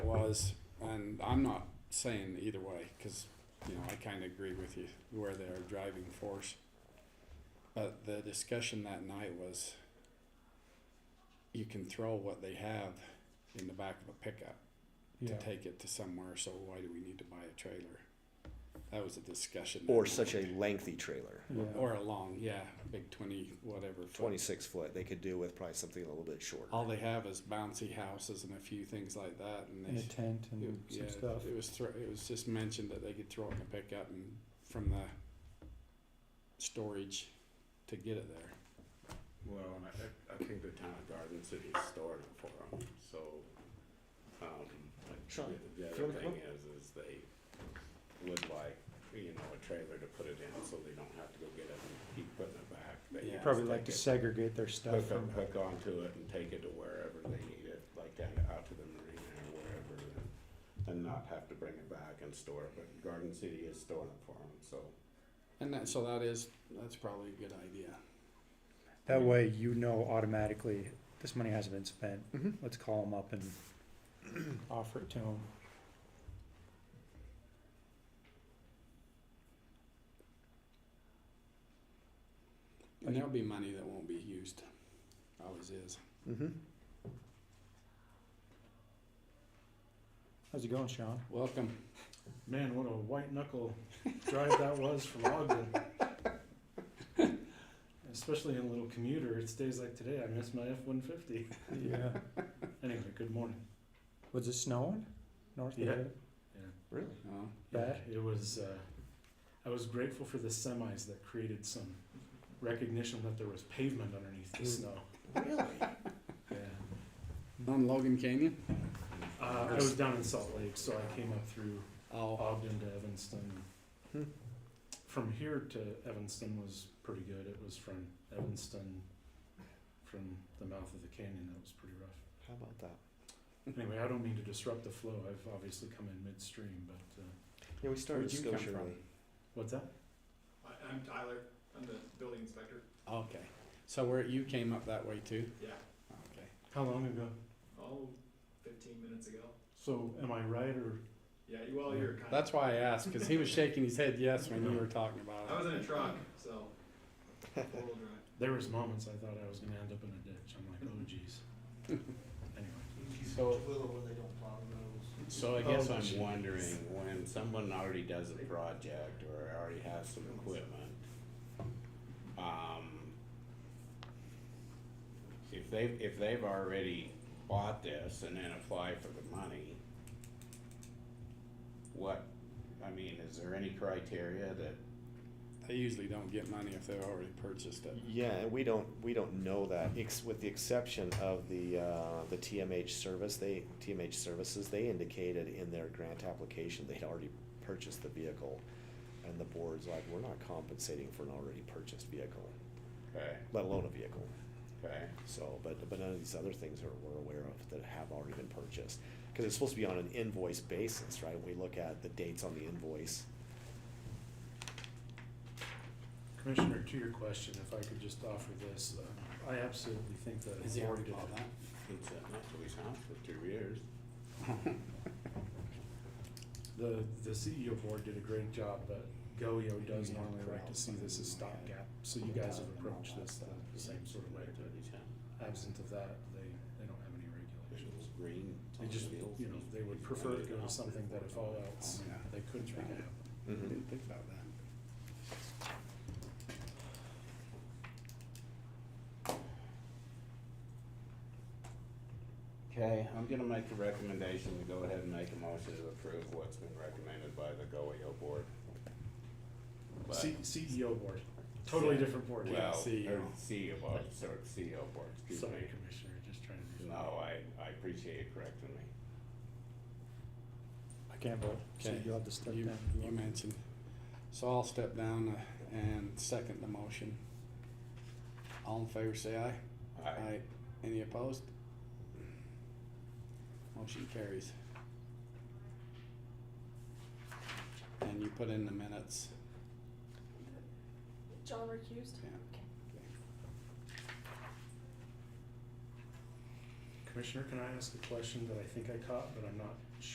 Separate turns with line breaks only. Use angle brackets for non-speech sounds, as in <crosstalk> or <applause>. was, and I'm not saying either way, cause, you know, I kinda agree with you where they are driving force. But the discussion that night was, you can throw what they have in the back of a pickup to
Yeah.
take it to somewhere, so why do we need to buy a trailer? That was a discussion. that
Or
night.
such a lengthy trailer,
Yeah.
Or a long, yeah, big twenty, whatever. foot.
twenty-six foot, they could do with probably something a little bit shorter.
All they have is bouncy houses and a few things like that, and
And
they
a tent and
It-
some
yeah,
stuff.
It was thro- it was just mentioned that they could throw it in the pickup and from the storage to get it there.
Well, and I, I think the town of Garden City is storing it for them, so, um, like,
Sure.
the- the
Sure,
other
come
thing is, is they would like, you know, a trailer to put it in, so they don't have to go get it and keep putting it back. They
Yeah.
just
Probably like
take
to
it,
segregate their stuff
Hook
from.
up, hook onto it and take it to wherever they need it, like down out to the marina or wherever, and, and not have to bring it back and store it, but Garden City is storing it for them, so.
And that, so that is, that's probably a good idea.
That way you know automatically, this money hasn't been spent.
Mhm.
Mm-hmm.
Let's call them
<clears throat>
up and offer it to them.
And there'll be money that won't be used, always is.
Mm-hmm.
How's it going, Sean?
Welcome.
Man, what a white knuckle drive that was from Ogden. Especially in a little commuter, it's days like today, I miss my F one fifty.
Yeah.
Anyway, good morning.
<laughs> Was it snowing? North
Yeah.
Dakota?
Really?
Oh,
Yeah,
Bad?
It was, uh, I was grateful for the semis that created some recognition that there was pavement underneath the snow.
Really?
Yeah.
on Logan Canyon?
Uh, I was down in Salt Lake, so I came up through
Oh,
Ogden to Evanston.
Hmm.
From here to Evanston was pretty good. It was from Evanston, from the mouth of the canyon, that was pretty rough.
How about that?
Anyway, I don't mean to disrupt the flow. I've obviously come in midstream, but uh,
Yeah, we started
Where'd you come
Scotia
from?
Ray.
what's that?
I, I'm Tyler, I'm the building inspector,
okay. So where, you came up that way too?
yeah,
Okay.
How long ago?
oh, fifteen minutes ago.
So am I right or?
Yeah, you all, you're kind of,
That's why I asked, cause he was shaking his head yes when you were talking
I
about
was in a truck,
<laughs>
so, four-wheel drive.
There was moments I thought I was gonna end up in a ditch. I'm like, oh geez. Anyway.
it. So, so I guess
Oh,
I'm
geez.
one.
wondering when someone already does a project or already has some equipment. Um, if they've, if they've already bought this and then apply for the money, what, I mean, is there any criteria that
They usually don't get money if they've already purchased it.
Yeah, and we don't, we don't know that, ex- with the exception of the, uh, the TMH service, they, TMH services, they indicated in their grant application, they'd already purchased the vehicle. And the board's like, we're not compensating for an already purchased vehicle,
Okay,
let alone a vehicle.
okay,
So, but, but none of these other things are, we're aware of that have already been purchased. Cause it's supposed to be on an invoice basis, right? We look at the dates on the invoice.
Commissioner, to your question, if I could just offer this, uh, I absolutely think that.
Is he already
authoritative-
bought that?
it's uh, at Natalie house for two years.
The, the CEO board did a great job, but GOEO does
Yeah,
normally like to see this as stopgap, so you guys have approached this the same sort of way. but
Natalie House.
Absent of that, they, they don't have any regulations.
Green.
They just, you know, they would prefer to go to something that if all else,
Yeah.
they could make it happen.
I
Mm-hmm.
didn't think about that.
Okay, I'm gonna make a recommendation to go ahead and make a motion to approve what's been recommended by the GOEO board. But-
C, CEO board, totally different board.
Well,
CEO.
or CEO board, sorry, CEO board, excuse
Sorry,
me.
Commissioner, just trying to. be-
No, I, I appreciate you correcting me.
I can't vote, so
Okay.
you'll have to step
You,
down.
you mentioned, so I'll step down uh, and second the motion. All in favor, say aye.
I,
Any opposed? Motion carries. And you put in the minutes,
John recused?
yeah.
Commissioner, can I ask a question that I think I caught, but I'm not